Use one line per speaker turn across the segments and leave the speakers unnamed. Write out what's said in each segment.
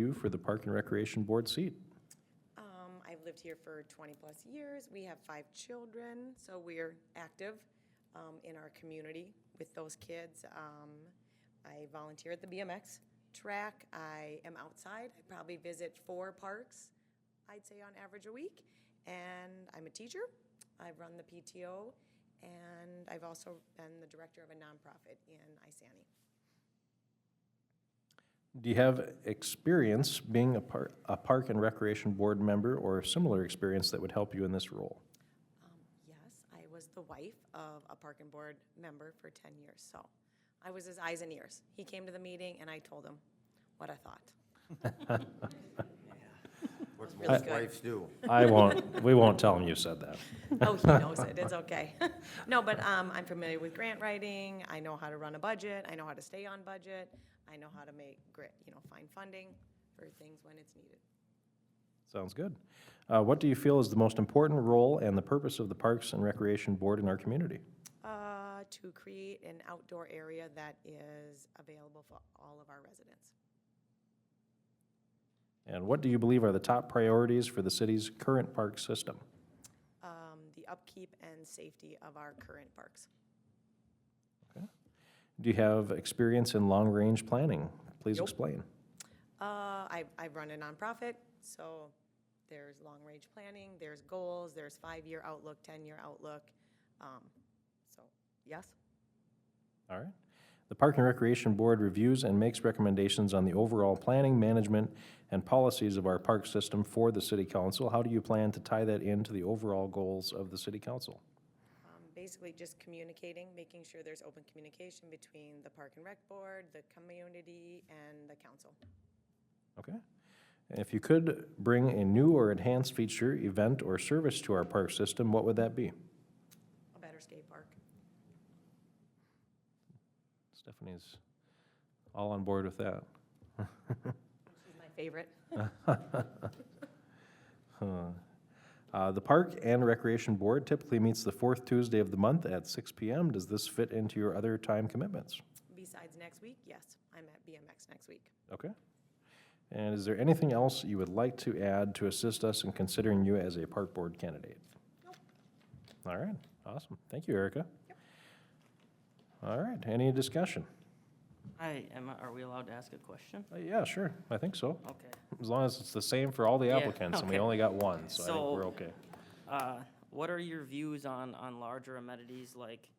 you for the Park and Recreation Board seat.
Um, I've lived here for 20-plus years. We have five children, so we're active um, in our community with those kids. Um, I volunteer at the BMX track. I am outside. I probably visit four parks, I'd say on average a week. And I'm a teacher. I run the PTO, and I've also been the director of a nonprofit in Isani.
Do you have experience being a par, a Park and Recreation Board member or similar experience that would help you in this role?
Um, Yes, I was the wife of a park and board member for 10 years, so I was his eyes and ears. He came to the meeting and I told him what I thought.
What
really
most
good.
wives do.
I won't, we won't tell him you said that.
Oh, he knows it, it's okay. No, but um, I'm familiar with grant writing, I know how to run a budget, I know how to stay on budget, I know how to make grit, you know, find funding for things when it's needed.
Sounds good. Uh, what do you feel is the most important role and the purpose of the Parks and Recreation Board in our community?
Uh, To create an outdoor area that is available for all of our residents.
And what do you believe are the top priorities for the city's current park system?
Um, The upkeep and safety of our current parks.
Do you have experience in long-range planning? Please
Nope.
explain.
Uh, I, I run a nonprofit, so there's long-range planning, there's goals, there's five-year outlook, 10-year outlook. Um, So, yes?
All right. The Park and Recreation Board reviews and makes recommendations on the overall planning, management, and policies of our park system for the city council. How do you plan to tie that into the overall goals of the city council?
Um, Basically, just communicating, making sure there's open communication between the Park and Rec Board, the community, and the council.
Okay? And If you could bring a new or enhanced feature, event, or service to our park system, what would that be?
A better skate park.
Stephanie's all on board with that.
She's my favorite.
Uh, The Park and Recreation Board typically meets the fourth Tuesday of the month at 6 PM. Does this fit into your other time commitments?
Besides next week, yes, I'm at BMX next week.
Okay. And is there anything else you would like to add to assist us in considering you as a park board candidate? All right, awesome. Thank you, Erica. All right, any discussion?
Hi, Emma, are we allowed to ask a question?
Uh, Yeah, sure, I think so.
Okay.
As long as it's the same for all the
Yeah,
applicants, and we
okay.
only got one, so I think we're
So-
okay.
Uh, What are your views on, on larger amenities like,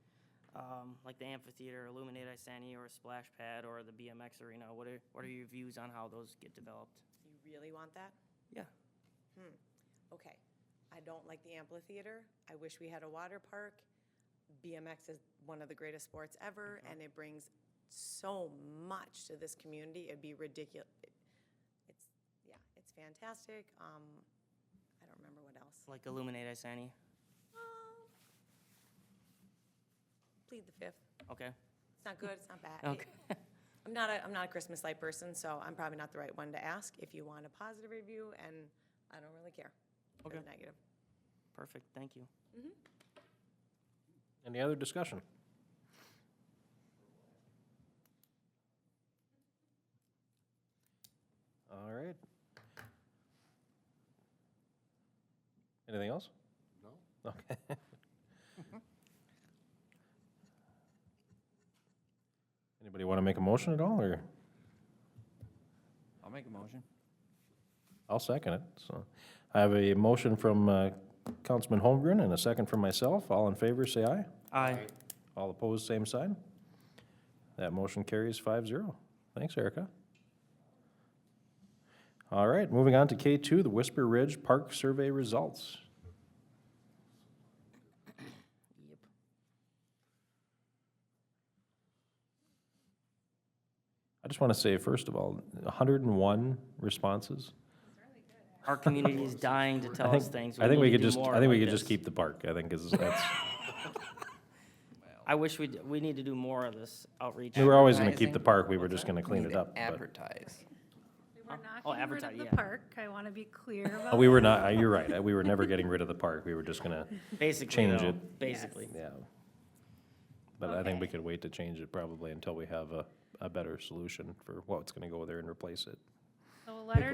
um, like the amphitheater, Illuminate Isani, or a splash pad, or the BMX arena? What are, what are your views on how those get developed?
You really want that? Hmm.
Yeah.
Okay, I don't like the amphitheater. I wish we had a water park. BMX is one of the greatest sports ever,
Mm-hmm.
and it brings so much to this community. It'd be ridiculous. It's, yeah, it's fantastic. Um, I don't remember what else.
Like Illuminate Isani?
Um, Plead the fifth.
Okay,
It's not good, it's not bad.
okay.
I'm not a, I'm not a Christmas light person, so I'm probably not the right one to ask if you want a positive review, and I don't really care for the
Okay.
negative.
Perfect, thank you.
Any other discussion? All right. Anything else? No. Okay. Anybody want to make a motion at all, or?
I'll make a motion.
I'll second it, so. I have a motion from uh, Councilman Holmgren and a second from myself. All in favor, say aye.
Aye.
All opposed, same sign. That motion carries 5-0. Thanks, Erica. All right, moving on to K two, the Whisper Ridge Park Survey results.
Yep.
I just want to say, first of all, hundred and one responses.
Our community is dying to
I
tell us
think-
things.
I think
need
we
to
could
do
just,
more
I think we
like
could just
this.
keep the park, I think is, that's,
I wish we, we need to do more of this outreach.
we were always going to keep
Advertising.
the park, we were just going to clean
Need
it
to
up. but-
Advertise.
We were
oh,
not getting rid
advertise,
of
yeah.
the park. I want to be clear about
Uh, We were not, uh, you're right, uh, we were never getting rid of the park, we were just going to,
Basically,
Change
though,
it.
Basically.
yeah. But I think we
Okay.
could wait to change it probably until we have a, a better solution for what's going to go there and replace it.
So a letter